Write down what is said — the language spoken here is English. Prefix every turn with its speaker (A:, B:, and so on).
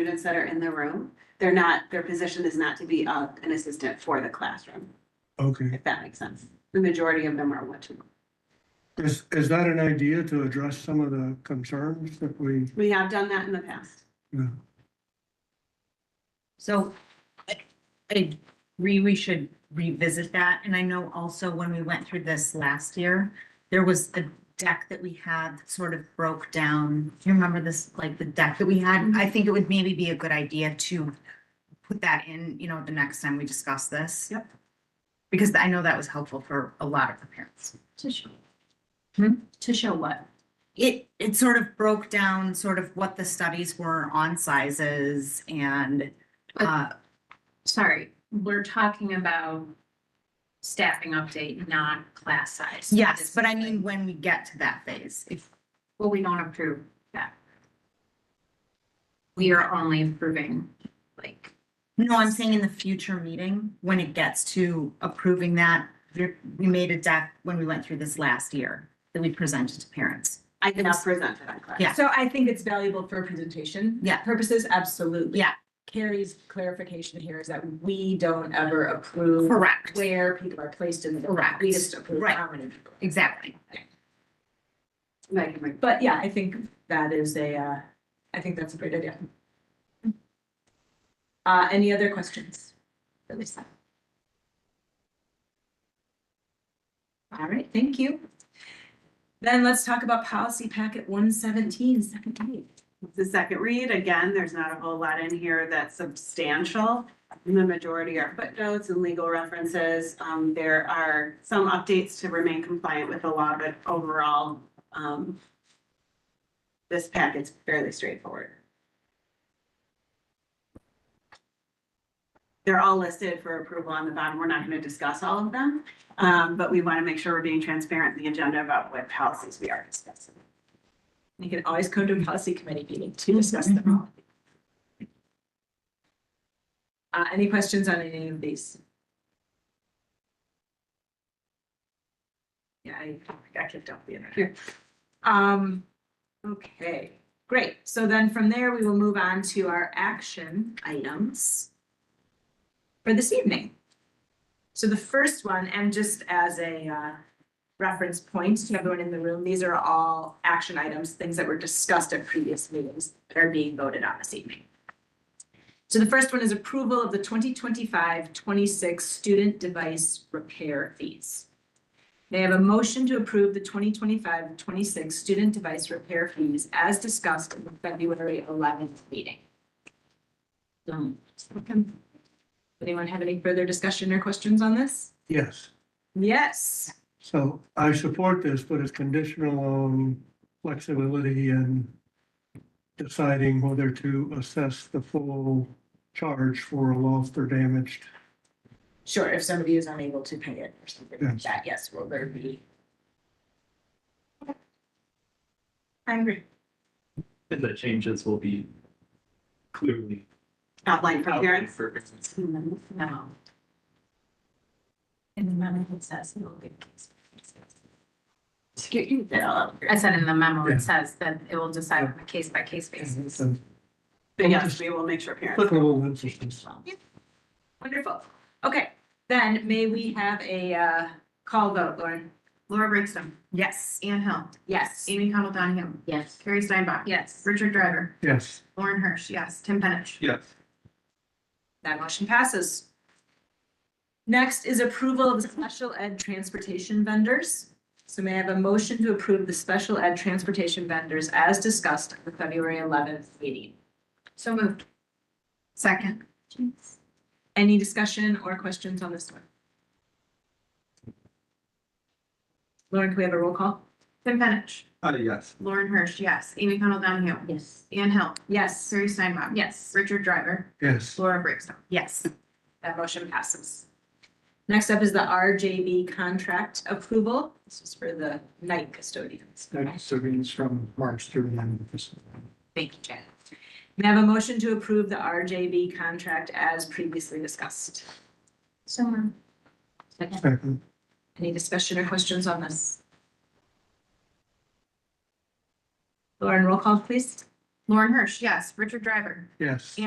A: students that are in the room. They're not, their position is not to be uh, an assistant for the classroom,
B: Okay,
A: if that makes sense. The majority of them are one to.
B: is, is that an idea to address some of the concerns that we,
A: We have done that in the past.
B: you know,
C: So I I agree we should revisit that. And I know also when we went through this last year, there was a deck that we had that sort of broke down. Do you remember this, like the deck that we had? I think it would maybe be a good idea to put that in, you know, the next time we discuss this.
A: Yep.
C: Because I know that was helpful for a lot of the parents.
D: To show.
C: Hmm?
D: To show what?
C: It, it sort of broke down sort of what the studies were on sizes and, uh,
D: Sorry, we're talking about staffing update, not class size.
C: Yes, but I mean, when we get to that phase, if,
D: Well, we don't approve that. We are only approving, like,
C: no, I'm saying in the future meeting, when it gets to approving that, we we made a deck when we went through this last year that we presented to parents.
A: I did not present to that class.
C: Yeah.
E: So I think it's valuable for presentation.
C: Yeah.
E: Purposes, absolutely.
C: Yeah.
E: Carrie's clarification here is that we don't ever approve
C: Correct,
E: where people are placed in the.
C: Correct.
E: We just approve
C: Right.
E: how many people.
C: exactly.
A: Like, like,
E: But yeah, I think that is a, uh, I think that's a great idea. Uh, any other questions? for Lisa? All right, thank you. Then let's talk about policy packet one seventeen, second page.
A: The second read, again, there's not a whole lot in here that's substantial. The majority are footnotes and legal references. Um, there are some updates to remain compliant with the law, but overall, um, this packet's fairly straightforward. They're all listed for approval on the bottom. We're not going to discuss all of them, um, but we want to make sure we're being transparent in the agenda about what policies we are discussing.
E: You can always come to a policy committee meeting to discuss them all. Uh, any questions on any of these? Yeah, I, I kicked off the internet here. Um, okay, great. So then from there, we will move on to our action items for this evening. So the first one, and just as a, uh, reference points to everyone in the room. These are all action items, things that were discussed at previous meetings that are being voted on this evening. So the first one is approval of the 2025-26 student device repair fees. They have a motion to approve the 2025-26 student device repair fees as discussed in the February eleventh meeting. Um, second. Anyone have any further discussion or questions on this?
B: yes.
E: Yes.
B: So I support this, but it's conditional on flexibility and deciding whether to assess the full charge for a lost or damaged.
E: Sure, if somebody is unable to pay it or something like
B: Yes.
E: that, yes, will there be? I agree.
F: And the changes will be clearly.
A: Outline for
F: outlined
A: parents.
F: for-
D: no. In the memo, it says it will be. I said in the memo,
B: Yeah.
D: it says that it will decide on a case by case basis.
B: So
A: But yes, we will make sure parents.
B: Applicable instances.
E: Wonderful. Okay, then may we have a uh call vote, Lauren?
G: Laura Brinkstone. Yes. Anne Hill.
E: Yes.
G: Amy Connell Donahue.
D: Yes.
G: Carrie Steinbach.
D: Yes.
G: Richard Driver.
B: Yes.
G: Lauren Hirsch. Yes. Tim Penich.
F: Yes.
E: That motion passes. Next is approval of the special ed transportation vendors. So may I have a motion to approve the special ed transportation vendors as discussed at the February eleventh meeting?
D: So moved.
G: Second.
E: Any discussion or questions on this one? Lauren, can we have a roll call?
G: Tim Penich.
F: Uh, yes.
G: Lauren Hirsch. Yes. Amy Connell Donahue.
D: Yes.
G: Anne Hill.
E: Yes,
G: Carrie Steinbach.
D: Yes.
G: Richard Driver.
B: Yes.
G: Laura Brinkstone.
C: Yes,
E: that motion passes. Next up is the RJB contract approval. This is for the night custodians.
H: So means from March through the end of this.
E: Thank you, Janet. May I have a motion to approve the RJB contract as previously discussed?
D: So moved.
B: Second.
E: Any discussion or questions on this? Lauren, roll call, please.
D: Lauren Hirsch, yes. Richard Driver.
B: yes.